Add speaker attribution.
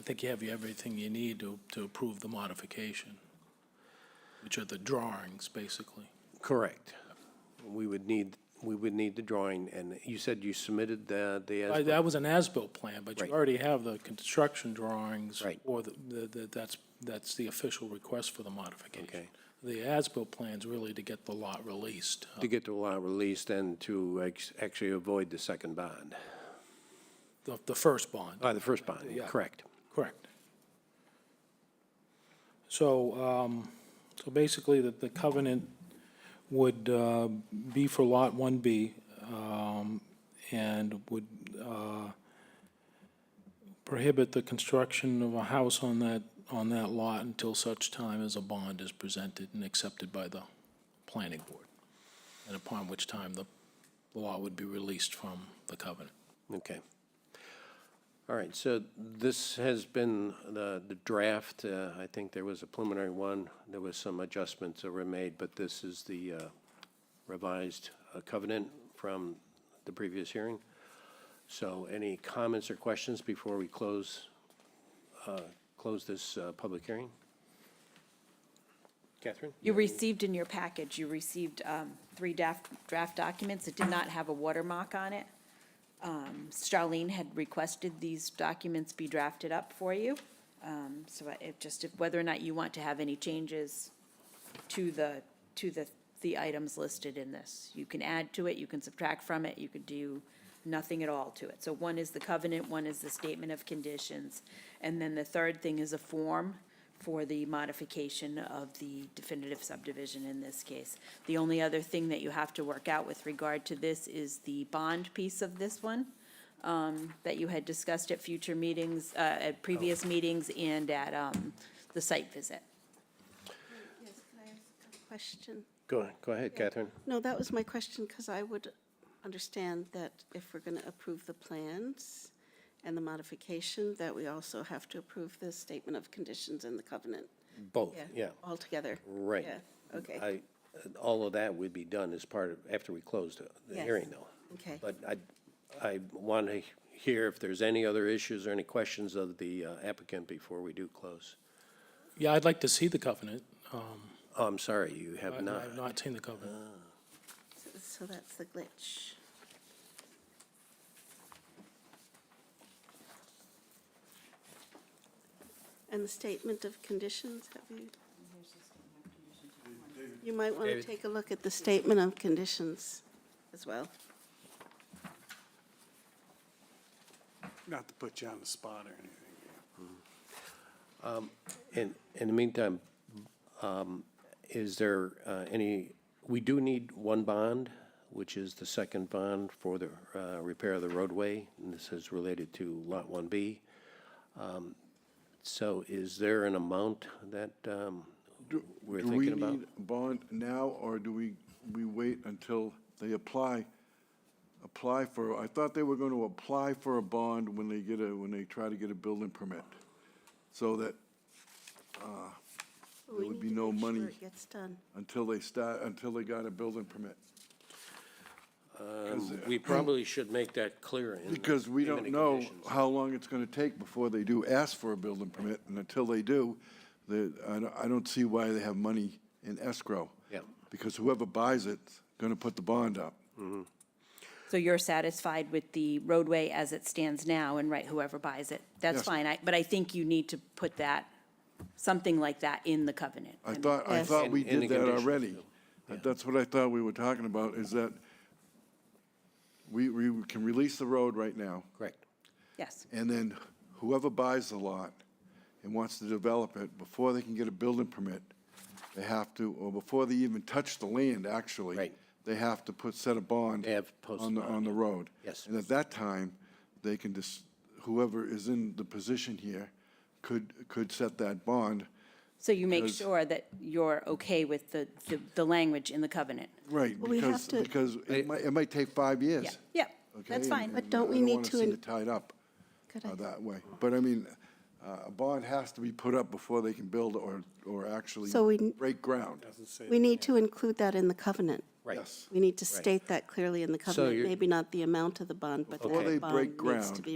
Speaker 1: think you have everything you need to, to approve the modification, which are the drawings, basically.
Speaker 2: Correct. We would need, we would need the drawing, and you said you submitted the, the,
Speaker 1: I-
Speaker 2: as-
Speaker 1: That was an as-built plan, but you
Speaker 2: Right.
Speaker 1: already have the construction drawings.
Speaker 2: Right.
Speaker 1: Or the, the- the- that's, that's the official request for the modification.
Speaker 2: Okay.
Speaker 1: The as-built plan's really to get the lot released. uh,
Speaker 2: to get the lot released and to ex- actually avoid the second bond,
Speaker 1: The, the first bond,
Speaker 2: uh, the first bond, correct.
Speaker 1: correct. So, um, so basically, the, the covenant would, uh, be for Lot One B, um, and would, uh, prohibit the construction of a house on that, on that lot until such time as a bond is presented and accepted by the planning board, and upon which time the the lot would be released from the covenant.
Speaker 2: Okay. All right, so this has been the, the draft, uh, I think there was a preliminary one, there was some adjustments that were made, but this is the uh, revised uh, covenant from the previous hearing. So any comments or questions before we close, uh, close this uh, public hearing? Catherine?
Speaker 3: You received in your package, you received um, three draft, draft documents. It did not have a watermark on it. Um, Charlene had requested these documents be drafted up for you. Um, So I- it just, if- whether or not you want to have any changes to the, to the, the items listed in this. You can add to it, you can subtract from it, you could do nothing at all to it. So one is the covenant, one is the statement of conditions, and then the third thing is a form for the modification of the definitive subdivision in this case. The only other thing that you have to work out with regard to this is the bond piece of this one um, that you had discussed at future meetings, uh, at previous meetings and at um, the site visit.
Speaker 4: Yes, can I ask a question?
Speaker 2: Go, ahead- go ahead, Catherine.
Speaker 4: No, that was my question, because I would understand that if we're going to approve the plans and the modification, that we also have to approve the statement of conditions and the covenant.
Speaker 2: Both, yeah,
Speaker 4: All together.
Speaker 2: right.
Speaker 4: Yeah, okay.
Speaker 2: I, all of that would be done as part of, after we closed the- the
Speaker 4: Yes.
Speaker 2: hearing, though.
Speaker 4: Okay.
Speaker 2: But I, I want to hear if there's any other issues or any questions of the uh, applicant before we do close.
Speaker 1: Yeah, I'd like to see the covenant.
Speaker 2: Oh, I'm sorry, you have
Speaker 1: I-
Speaker 2: not.
Speaker 1: I've not seen the covenant.
Speaker 4: So that's the glitch. And the statement of conditions, have you? You might want to
Speaker 2: David?
Speaker 4: take a look at the statement of conditions as well.
Speaker 5: Not to put you on the spot or anything.
Speaker 2: In, in the meantime, um, is there uh, any, we do need one bond, which is the second bond for the uh, repair of the roadway, and this is related to Lot 1B. Um, So is there an amount that um, we're
Speaker 6: Do we
Speaker 2: thinking about?
Speaker 6: need a bond now, or do we, we wait until they apply, apply for, I thought they were going to apply for a bond when they get a, when they try to get a building permit, so that
Speaker 4: But
Speaker 6: There
Speaker 4: we
Speaker 6: would
Speaker 4: need to
Speaker 6: be no
Speaker 4: make sure
Speaker 6: money.
Speaker 4: It gets done.
Speaker 6: until they start, until they got a building permit.
Speaker 2: Um, We probably should make that clear in. the
Speaker 6: Because we
Speaker 2: payment
Speaker 6: don't
Speaker 2: of
Speaker 6: know
Speaker 2: conditions.
Speaker 6: how long it's going to take before they do ask for a building permit, and until they do, the, I don't, I don't see why they have money in escrow.
Speaker 2: Yeah.
Speaker 6: Because whoever buys it's going to put the bond up.
Speaker 3: So you're satisfied with the roadway as it stands now and right whoever buys it? That's
Speaker 6: Yes.
Speaker 3: fine, I- but I think you need to put that, something like that in the covenant.
Speaker 6: I thought, I
Speaker 4: Yes.
Speaker 6: thought we
Speaker 2: And- and
Speaker 6: did
Speaker 2: the
Speaker 6: that
Speaker 2: conditions,
Speaker 6: already. Uh,
Speaker 2: too.
Speaker 6: That's what I thought we were talking about, is that we, we can release the road right now,
Speaker 2: Correct.
Speaker 3: Yes,
Speaker 6: and then whoever buys the lot and wants to develop it, before they can get a building permit, they have to, or before they even touch the land, actually.
Speaker 2: Right.
Speaker 6: They have to put, set a bond.
Speaker 2: They have to post
Speaker 6: On the,
Speaker 2: a bond,
Speaker 6: on the
Speaker 2: yeah.
Speaker 6: road.
Speaker 2: Yes.
Speaker 6: And at that time, they can just, whoever is in the position here could, could set that bond.
Speaker 3: so you make
Speaker 6: Because-
Speaker 3: sure that you're okay with the, the, the language in the covenant.
Speaker 6: Right,
Speaker 4: we have
Speaker 6: because,
Speaker 4: to-
Speaker 6: because it might, it might take five years.
Speaker 3: Yeah, yeah,
Speaker 6: okay,
Speaker 3: that's
Speaker 6: and-
Speaker 3: fine.
Speaker 6: and
Speaker 4: But don't
Speaker 6: I
Speaker 4: we need
Speaker 6: wanna
Speaker 4: to
Speaker 6: see
Speaker 4: in-
Speaker 6: it tied up
Speaker 4: Good
Speaker 6: uh,
Speaker 4: idea.
Speaker 6: that way. But I mean, uh, a bond has to be put up before they can build or, or actually
Speaker 4: So we-
Speaker 6: break ground.
Speaker 4: We need to include that in the covenant.
Speaker 2: Right.
Speaker 6: Yes.
Speaker 4: We need to state that clearly in the covenant,
Speaker 2: you're-
Speaker 4: maybe not the amount of the bond, but that
Speaker 6: Before they
Speaker 4: the
Speaker 6: break
Speaker 4: bond needs to
Speaker 6: ground,
Speaker 4: be